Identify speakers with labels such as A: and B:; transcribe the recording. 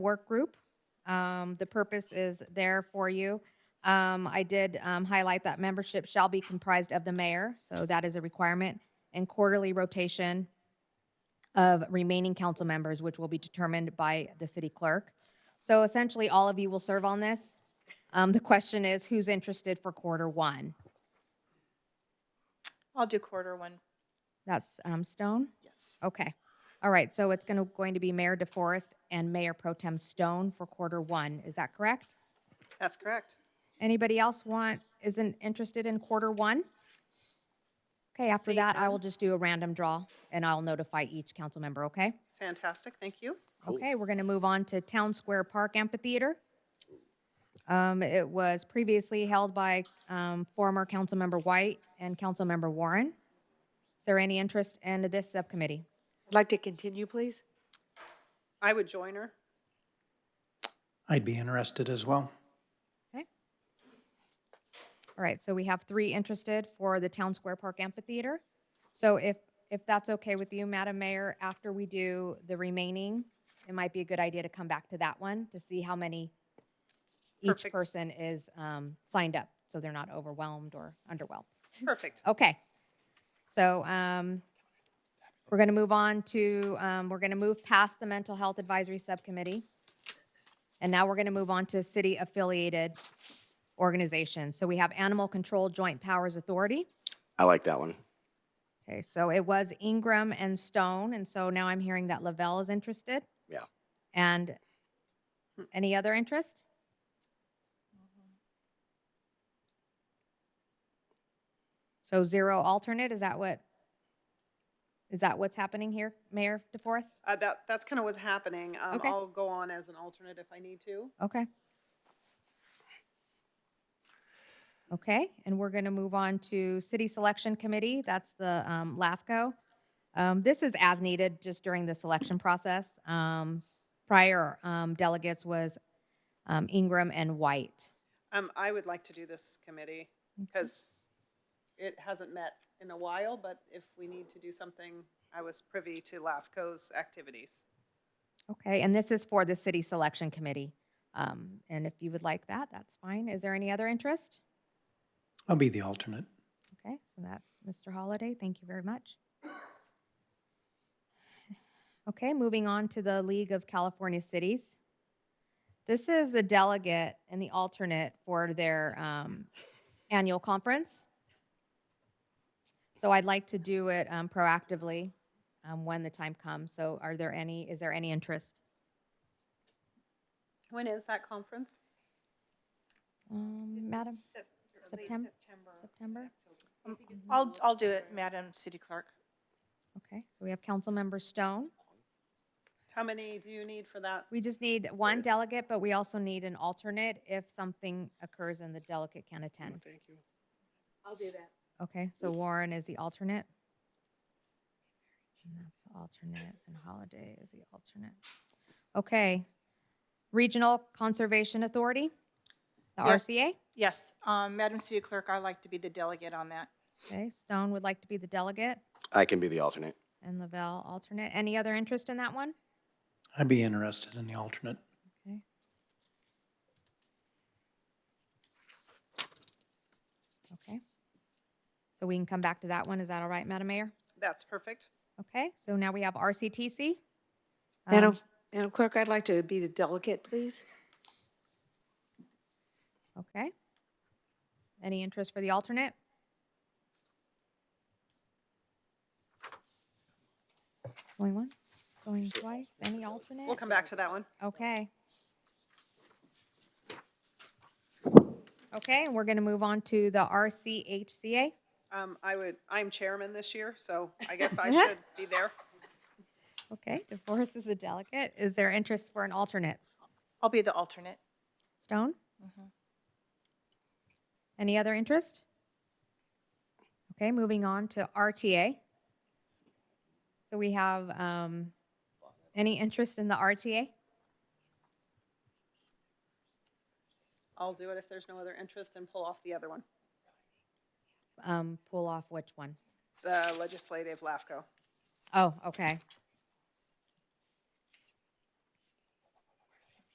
A: work group. Um, The purpose is there for you. Um, I did um, highlight that membership shall be comprised of the mayor, so that is a requirement, and quarterly rotation of remaining council members, which will be determined by the city clerk. So essentially, all of you will serve on this. Um, The question is, who's interested for quarter one?
B: I'll do quarter one,
A: That's um, Stone?
B: yes.
A: Okay. All right, so it's gonna, going to be Mayor DeForest and Mayor Pro Tem Stone for quarter one, is that correct?
B: That's correct.
A: Anybody else want, isn't interested in quarter one? Okay, after
B: Same
A: that, I
B: time.
A: will just do a random draw, and I'll notify each council member, okay?
B: Fantastic, thank you.
A: Okay, we're going to move on to Town Square Park Amphitheater. Um, It was previously held by um, former Councilmember White and Councilmember Warren. Is there any interest in this subcommittee?
C: I'd like to continue, please.
B: I would join her.
D: I'd be interested as well.
A: Okay. All right, so we have three interested for the Town Square Park Amphitheater. So if, if that's okay with you, Madam Mayor, after we do the remaining, it might be a good idea to come back to that one to see how many each
B: Perfect.
A: person is um, signed up, so they're not overwhelmed or underwhelmed.
B: Perfect.
A: Okay. So um, we're going to move on to, um, we're going to move past the Mental Health Advisory Subcommittee. And now we're going to move on to city-affiliated organizations. So we have Animal Control Joint Powers Authority.
E: I like that one.
A: Okay, so it was Ingram and Stone, and so now I'm hearing that Lavelle is interested.
E: Yeah.
A: And any other interest? So zero alternate, is that what, is that what's happening here, Mayor DeForest?
B: Uh, That, that's kind of what's happening. Um,
A: Okay.
B: I'll go on as an alternate if I need to.
A: Okay. Okay, and we're going to move on to City Selection Committee. That's the um, LAFCO. Um, This is as needed, just during the selection process. Um, Prior um, delegates was um, Ingram and White.
B: Um, I would like to do this committee because it hasn't met in a while, but if we need to do something, I was privy to LAFCO's activities.
A: Okay, and this is for the City Selection Committee. Um, And if you would like that, that's fine. Is there any other interest?
D: I'll be the alternate.
A: Okay, so that's Mr. Holliday. Thank you very much. Okay, moving on to the League of California Cities. This is the delegate and the alternate for their um, annual conference. So I'd like to do it um, proactively um, when the time comes. So are there any, is there any interest?
B: When is that conference?
A: Um, Madam, September? September?
F: I'll, I'll do it, Madam City Clerk.
A: Okay, so we have Councilmember Stone.
B: How many do you need for that?
A: We just need one delegate, but we also need an alternate if something occurs and the delegate can attend.
E: Thank you.
C: I'll do that.
A: Okay, so Warren is the alternate. And that's the alternate, and Holiday is the alternate. Okay. Regional Conservation Authority, the
F: Yeah.
A: RCA.
F: Yes, um, Madam City Clerk, I'd like to be the delegate on that.
A: Okay, Stone would like to be the delegate
E: I can be the alternate.
A: and Lavelle alternate. Any other interest in that one?
D: I'd be interested in the alternate.
A: Okay. Okay. So we can come back to that one. Is that all right, Madam Mayor?
B: That's perfect.
A: Okay, so now we have RCTC. Um,
C: Madam, Madam Clerk, I'd like to be the delegate, please.
A: Um, Okay. Any interest for the alternate? Going once, going twice, any alternate?
B: We'll come back to that one.
A: Okay. Okay, and we're going to move on to the RCHCA.
B: Um, I would, I'm chairman this year, so I guess I should be there.
A: Okay, DeForest is a delegate. Is there interest for an alternate?
F: I'll be the alternate.
A: Stone? Any other interest? Okay, moving on to RTA. So we have, um, any interest in the RTA?
B: I'll do it if there's no other interest and pull off the other one,
A: Um, pull off which one?
B: the legislative LAFCO.
A: Oh, okay.